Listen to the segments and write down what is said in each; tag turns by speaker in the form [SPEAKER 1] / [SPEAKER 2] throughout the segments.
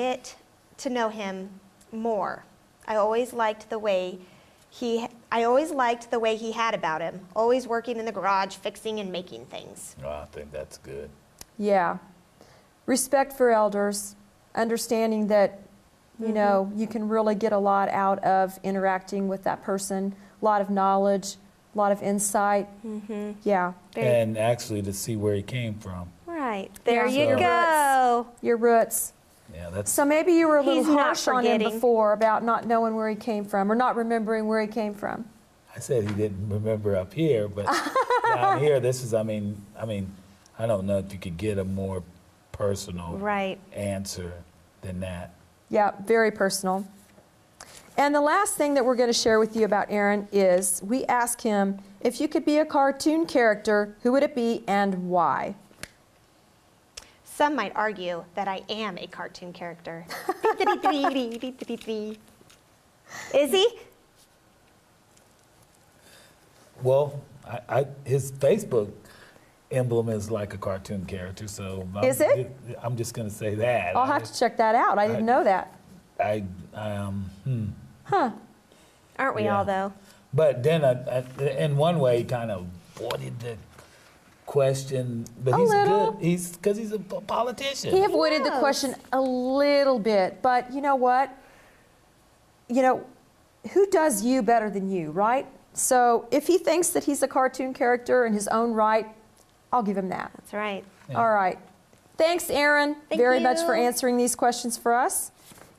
[SPEAKER 1] get to know him more. I always liked the way he I always liked the way he had about him, always working in the garage fixing and making things.
[SPEAKER 2] Oh, I think that's good.
[SPEAKER 3] Yeah. Respect for elders, understanding that,
[SPEAKER 1] Mm-hmm.
[SPEAKER 3] you know, you can really get a lot out of interacting with that person, a lot of knowledge, a lot of insight. Mm-hmm. Yeah.
[SPEAKER 1] Very
[SPEAKER 2] And actually to see where he came from.
[SPEAKER 1] right. There
[SPEAKER 3] Yeah.
[SPEAKER 1] you
[SPEAKER 2] So-
[SPEAKER 1] go.
[SPEAKER 3] Your roots.
[SPEAKER 2] Yeah, that's
[SPEAKER 3] So maybe you were a little
[SPEAKER 1] He's not
[SPEAKER 3] harsh on him
[SPEAKER 1] forgetting.
[SPEAKER 3] before about not knowing where he came from or not remembering where he came from.
[SPEAKER 2] I said he didn't remember up here, but down here this is I mean I mean, I don't know if you could get a more personal
[SPEAKER 1] Right.
[SPEAKER 2] answer than that.
[SPEAKER 3] Yeah, very personal. And the last thing that we're going to share with you about Aaron is we ask him if you could be a cartoon character, who would it be and why?
[SPEAKER 1] Some might argue that I am a cartoon character. Is he?
[SPEAKER 2] Well, I, I his Facebook emblem is like a cartoon character, so I'm,
[SPEAKER 3] Is it?
[SPEAKER 2] I'm just gonna say that.
[SPEAKER 3] I'll have to check that out. I didn't know that.
[SPEAKER 2] I, I um hmm.
[SPEAKER 1] Aren't we all
[SPEAKER 2] Yeah.
[SPEAKER 1] though?
[SPEAKER 2] But then, I, I, in one way, he kind of avoided the question. But
[SPEAKER 3] A
[SPEAKER 2] he's
[SPEAKER 3] little.
[SPEAKER 2] good. He's because he's a p- politician.
[SPEAKER 3] He avoided the
[SPEAKER 1] knows?
[SPEAKER 3] question a little bit, but you know what? You know, who does you better than you, right? So if he thinks that he's a cartoon character in his own right, I'll give him that.
[SPEAKER 1] That's right.
[SPEAKER 2] Yeah.
[SPEAKER 3] All right. Thanks, Aaron,
[SPEAKER 1] Thank
[SPEAKER 3] very much for
[SPEAKER 1] you.
[SPEAKER 3] answering these questions for us.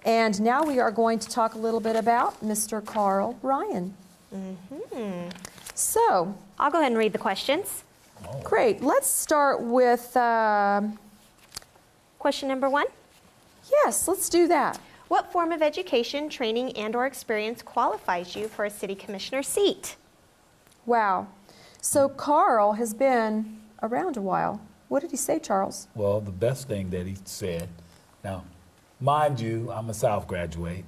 [SPEAKER 3] And now we are going to talk a little bit about Mr. Carl Ryan.
[SPEAKER 1] Mm-hmm.
[SPEAKER 3] So,
[SPEAKER 1] I'll go ahead and read the questions.
[SPEAKER 3] great. Let's start with um,
[SPEAKER 1] Question number 1.
[SPEAKER 3] yes, let's do that.
[SPEAKER 1] What form of education, training, and/or experience qualifies you for a city commissioner seat?
[SPEAKER 3] Wow. So Carl has been around a while. What did he say, Charles?
[SPEAKER 2] Well, the best thing that he said. Now, mind you, I'm a South graduate,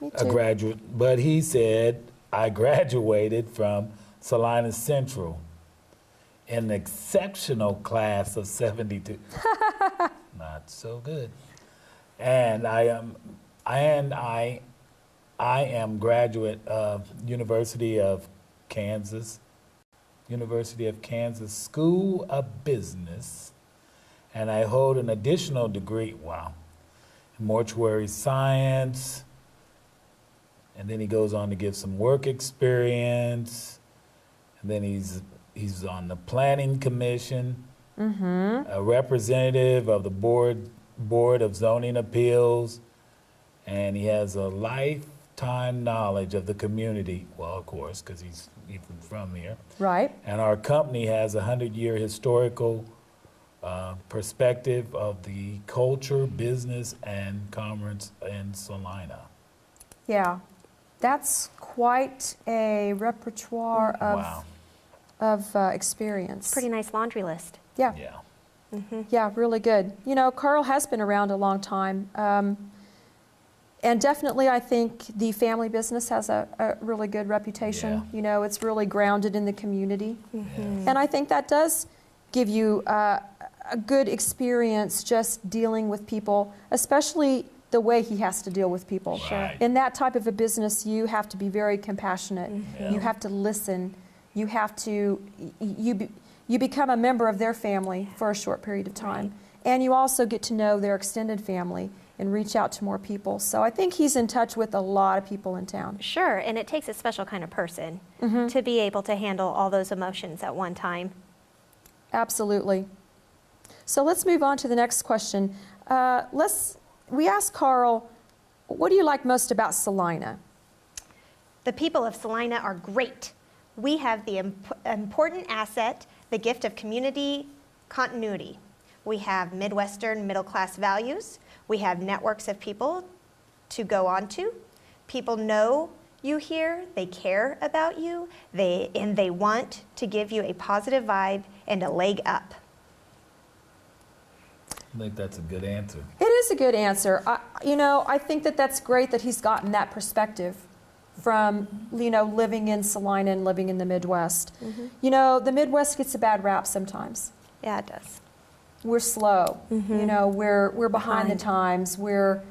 [SPEAKER 3] Me
[SPEAKER 2] a graduate. But he said I graduated from Salinas Central, an exceptional class of 72. Not so good. And I am, and I, I am graduate of University of Kansas, University of Kansas School of Business, and I hold an additional degree. Wow, mortuary science. And then he goes on to give some work experience. And then he's he's on the planning commission, a representative of the board board of zoning appeals, and he has a lifetime knowledge of the community. Well, of course, because he's even from here.
[SPEAKER 3] Right.
[SPEAKER 2] And our company has a 100 year historical uh, perspective of the culture, business, and commerce in Salina.
[SPEAKER 3] Yeah. That's quite a repertoire of,
[SPEAKER 2] wow.
[SPEAKER 3] of uh, experience.
[SPEAKER 1] Pretty nice laundry list.
[SPEAKER 3] Yeah.
[SPEAKER 2] Yeah.
[SPEAKER 3] Yeah, really good. You know, Carl has been around a long time. Um, and definitely, I think the family business has a, a really good reputation.
[SPEAKER 2] Yeah.
[SPEAKER 3] You know, it's really grounded in the community. And I think that does give you uh, a good experience just dealing with people, especially the way he has to deal with people.
[SPEAKER 2] Sure. Right.
[SPEAKER 3] In that type of a business, you have to be very compassionate. You
[SPEAKER 2] Yeah.
[SPEAKER 3] have to listen. You have to y- you be, you become a member of their family for a short period of time, and you also get to know their extended family and reach out to more people. So I think he's in touch with a lot of people in town.
[SPEAKER 1] Sure, and it takes a special kind of person to be able to handle all those emotions at one time.
[SPEAKER 3] Absolutely. So let's move on to the next question. Uh, let's, we asked Carl, what do you like most about Salina?
[SPEAKER 1] The people of Salina are great. We have the imp- important asset, the gift of community continuity. We have Midwestern middle class values. We have networks of people to go on to. People know you here, they care about you, they, and they want to give you a positive vibe and a leg up.
[SPEAKER 2] I think that's a good answer.
[SPEAKER 3] It is a good answer. I, you know, I think that that's great that he's gotten that perspective from, you know, living in Salina and living in the Midwest. You know, the Midwest gets a bad rap sometimes.
[SPEAKER 1] Yeah, it does.
[SPEAKER 3] we're slow. You know, we're we're behind the times. We're